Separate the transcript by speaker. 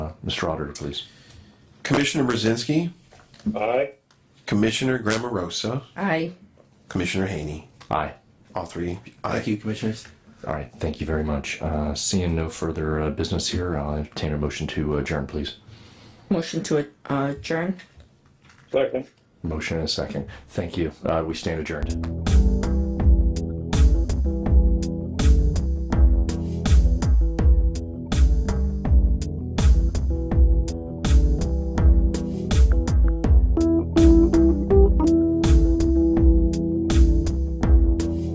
Speaker 1: Mr. Uh, Auditor, please.
Speaker 2: Commissioner Brzezinski,
Speaker 3: Aye.
Speaker 2: Commissioner Grammarosa,
Speaker 4: Aye.
Speaker 2: Commissioner Haney.
Speaker 1: Aye.
Speaker 2: All three.
Speaker 5: Thank you, commissioners.
Speaker 1: All right, thank you very much. Uh, Seeing no further uh, business here, I'll entertain a motion to adjourn, please.
Speaker 4: Motion to adjourn.
Speaker 3: Second.
Speaker 1: Motion and a second. Thank you. Uh, We stand adjourned.